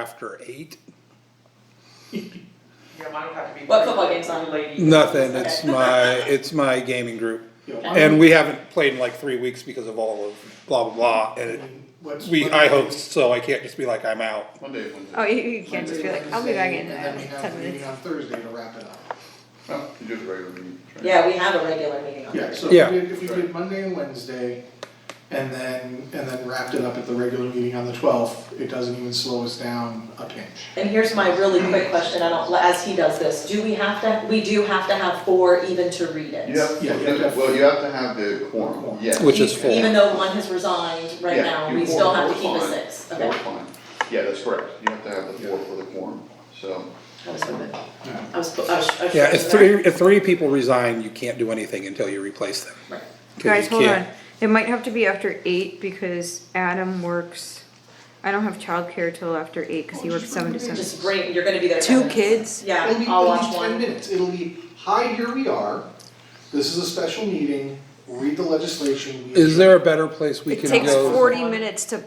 after eight? Yeah, mine would have to be. What football game's on? Lady. Nothing, it's Okay. my, it's my gaming group. You know, And we haven't played in like three weeks because of all of blah, blah, blah, and it- what's- we, I host, so I can't just be like, I'm out. One day, one day. Oh, you, you can't just be like, I'll be back in And then we uh, have ten a meeting minutes. on Thursday to wrap it up. No, you just regular meeting. right? Yeah, we have a regular meeting on Yeah, Thursday. so if we Yeah. did, if we did Monday and Wednesday, and then, and then wrapped it up at the regular meeting on the twelfth, it doesn't even slow us down a pinch. And here's my really quick question, I don't, as he does this, do we have to, we do have to have four even to read it? You have, Yeah, you have to have- well, you have to have the quorum, Quorum. yes. Which is Even- four. Even though one has resigned right Yeah, now, you- we still have to four, keep a fine. six, okay? Four, fine. Yeah, that's correct. You have to have the four for the quorum, so. I was hoping, Yeah. I was, I was. I was- Yeah, if three, if three people resign, you can't do anything until you replace them. Right. 'Cause you Guys, hold on. can't- It might have to be after eight because Adam works, I don't have childcare till after eight because he works seven to seven. Just bring, you're gonna be there. Two Kevin. kids? Yeah, It'll be, I'll it'll be watch ten one. minutes, it'll be, hi, here we are, this is a special meeting, read the legislation. we Is there a better place we It can go? takes forty minutes to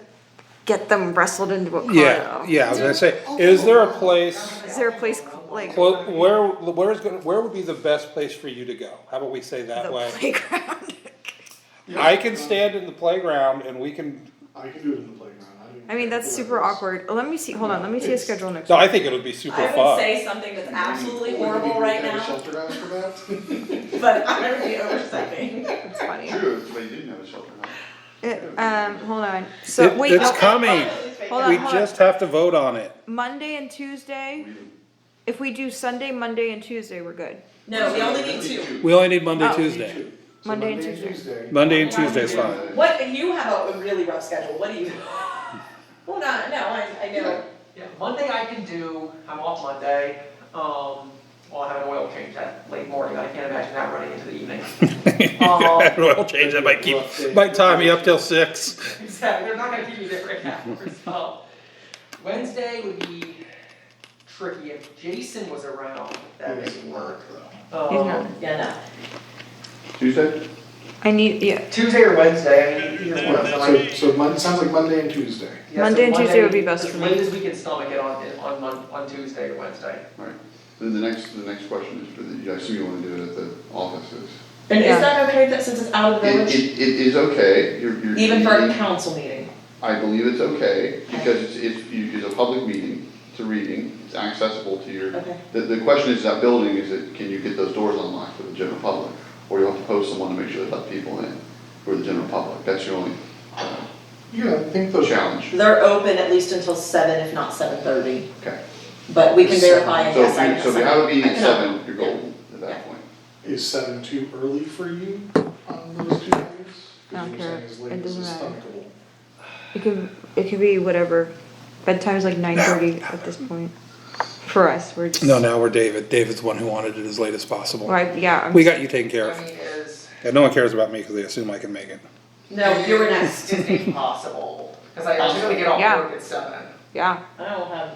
get them wrestled into a car Yeah, though. yeah, I was gonna say, is there a place, Is there a place like the clo- where, where's, gonna- where would be the best place for you to go? How about we say that way? playground? I can stand in the playground and we can, I can do it in the playground, I don't even I mean, that's care super where it is. awkward. Let me see, hold on, let me see a schedule next no, I week. think it'll be super I would fun. say something that's Or absolutely we could horrible do right kind of now, Shelter acrobat. but I'm gonna be overstepping. It's funny. True, but you didn't have a shelter house. It- um, hold on, so It- wait, it's okay, coming, hold on, we hold on. just have to vote on it. Monday and Tuesday, if we do Sunday, Monday and Tuesday, we're good. No, we only need two. We only need Monday, Oh. Tuesday, So Monday and Tuesday. Monday and Tuesday's Monday. fine. What, you have a really rough schedule, what do you? Well, not, no, I, I know, Yeah, Monday I can do, I'm off Monday, um, well, I have an oil change that late morning, I can't imagine that running into the evening. Um, Well, change that, might keep, might tie me up till six. exactly, they're not gonna keep you there right now, so. Wednesday would be tricky, if Jason was around, that That would doesn't work Um, He's not. yeah, Tuesday? I need, yeah, Tuesday or Wednesday, I mean, either one, but I- though. So, so Mon, sounds like Monday and Tuesday. Yeah, so Monday and Tuesday would be best for me. As late as we can stomach it on, on Mon, on Tuesday or Wednesday. Right. Then the next, the next question is for the, I assume you wanna do it at the offices. no. And Yeah. is that okay that since it's out of the It, village, it, it is okay, you're, you're. even for a council meeting? I believe it's okay, because it's, it's, you- it's a public meeting, it's a reading, it's accessible to your. Okay. The, the question is that building, is it, can you get those doors unlocked for the general public? Or you have to post someone to make sure they let people in for the general public, that's your only uh, Yeah, I think those. challenge, They're open at least until seven, if not seven thirty, okay? but we can verify and So yes, if I you, know. so if you have a meeting I at can- seven, you're golden at that point. Is seven too early for you on those two days? 'Cause I don't you were care. saying as late It as doesn't is matter. stomachable. it could, it could be whatever. Bedtime's like nine thirty at this point. For us, we're just. No, now we're David, David's the one who wanted it as late as possible. Like, yeah, I'm- We got you taken care I of, mean, is, and no one cares about me because they assume I can make it. No, you were next, is it possible? Cause I, I'm gonna get Yeah. off work at seven. yeah, I will have,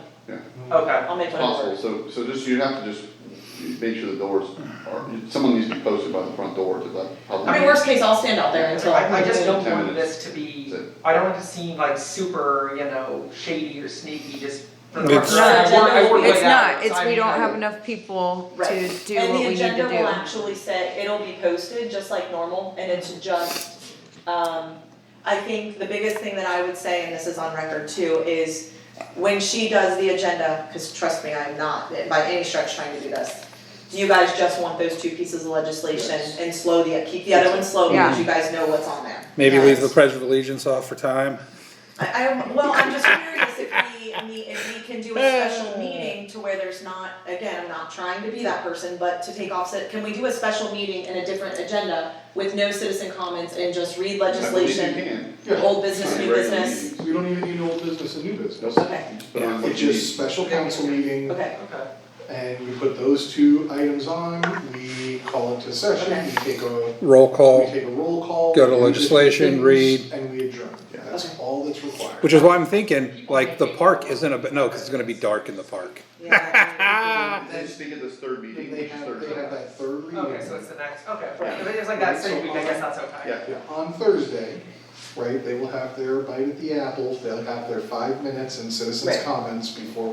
Okay. I'll make one Possible, so, so just, you have to just make sure the doors are, someone needs to be posted by the front door to let the public. I mean, worst case, I'll stand out there until. I, I just don't Ten want minutes. this to be, So- I don't want it to seem like super, you know, shady or sneaky, just. for the It's- record, I work- I work it's late not, hours, it's, I we mean, I- don't have enough people to Right. do what we need to do. And the agenda will actually say, it'll be posted just like normal, and Mm-hmm. it's just, um, I think the biggest thing that I would say, and this is on record too, is when she does the agenda, cause trust me, I'm not by any stretch trying to do this. Do you guys just want those two pieces of legislation Yes. and slow the, keep the other one slow because Yeah. you guys know what's on there? Maybe Yes. leave the pledge of allegiance off for time. I, I, well, I'm just curious if we, meet- if we can do a special meeting to where there's not, again, I'm not trying to be that person, but to take off, can we do a special meeting and a different agenda with no citizen comments and just read I believe you legislation, can. old business, new Regular business? meetings. We don't even need old business and new business. Okay, But I'm It's just special council meeting okay, Okay. and we put those two items on, we call it to session, Okay. we take a, Roll we call, take a roll call. Go to we do legislation, things, read. And we adjourn. That's Okay. all that's required. which is why I'm thinking, like, the park isn't a, no, because it's gonna be dark in the park. yeah. And then speak at this third meeting, And they which is have, they have Thursday. that third reading. Okay, so it's the next, okay, Right. if it is like that same week, I guess that's okay. Yeah. Yeah, on Thursday, right? They will have their bite at the apple, they'll have their five minutes and citizens' Right. comments before we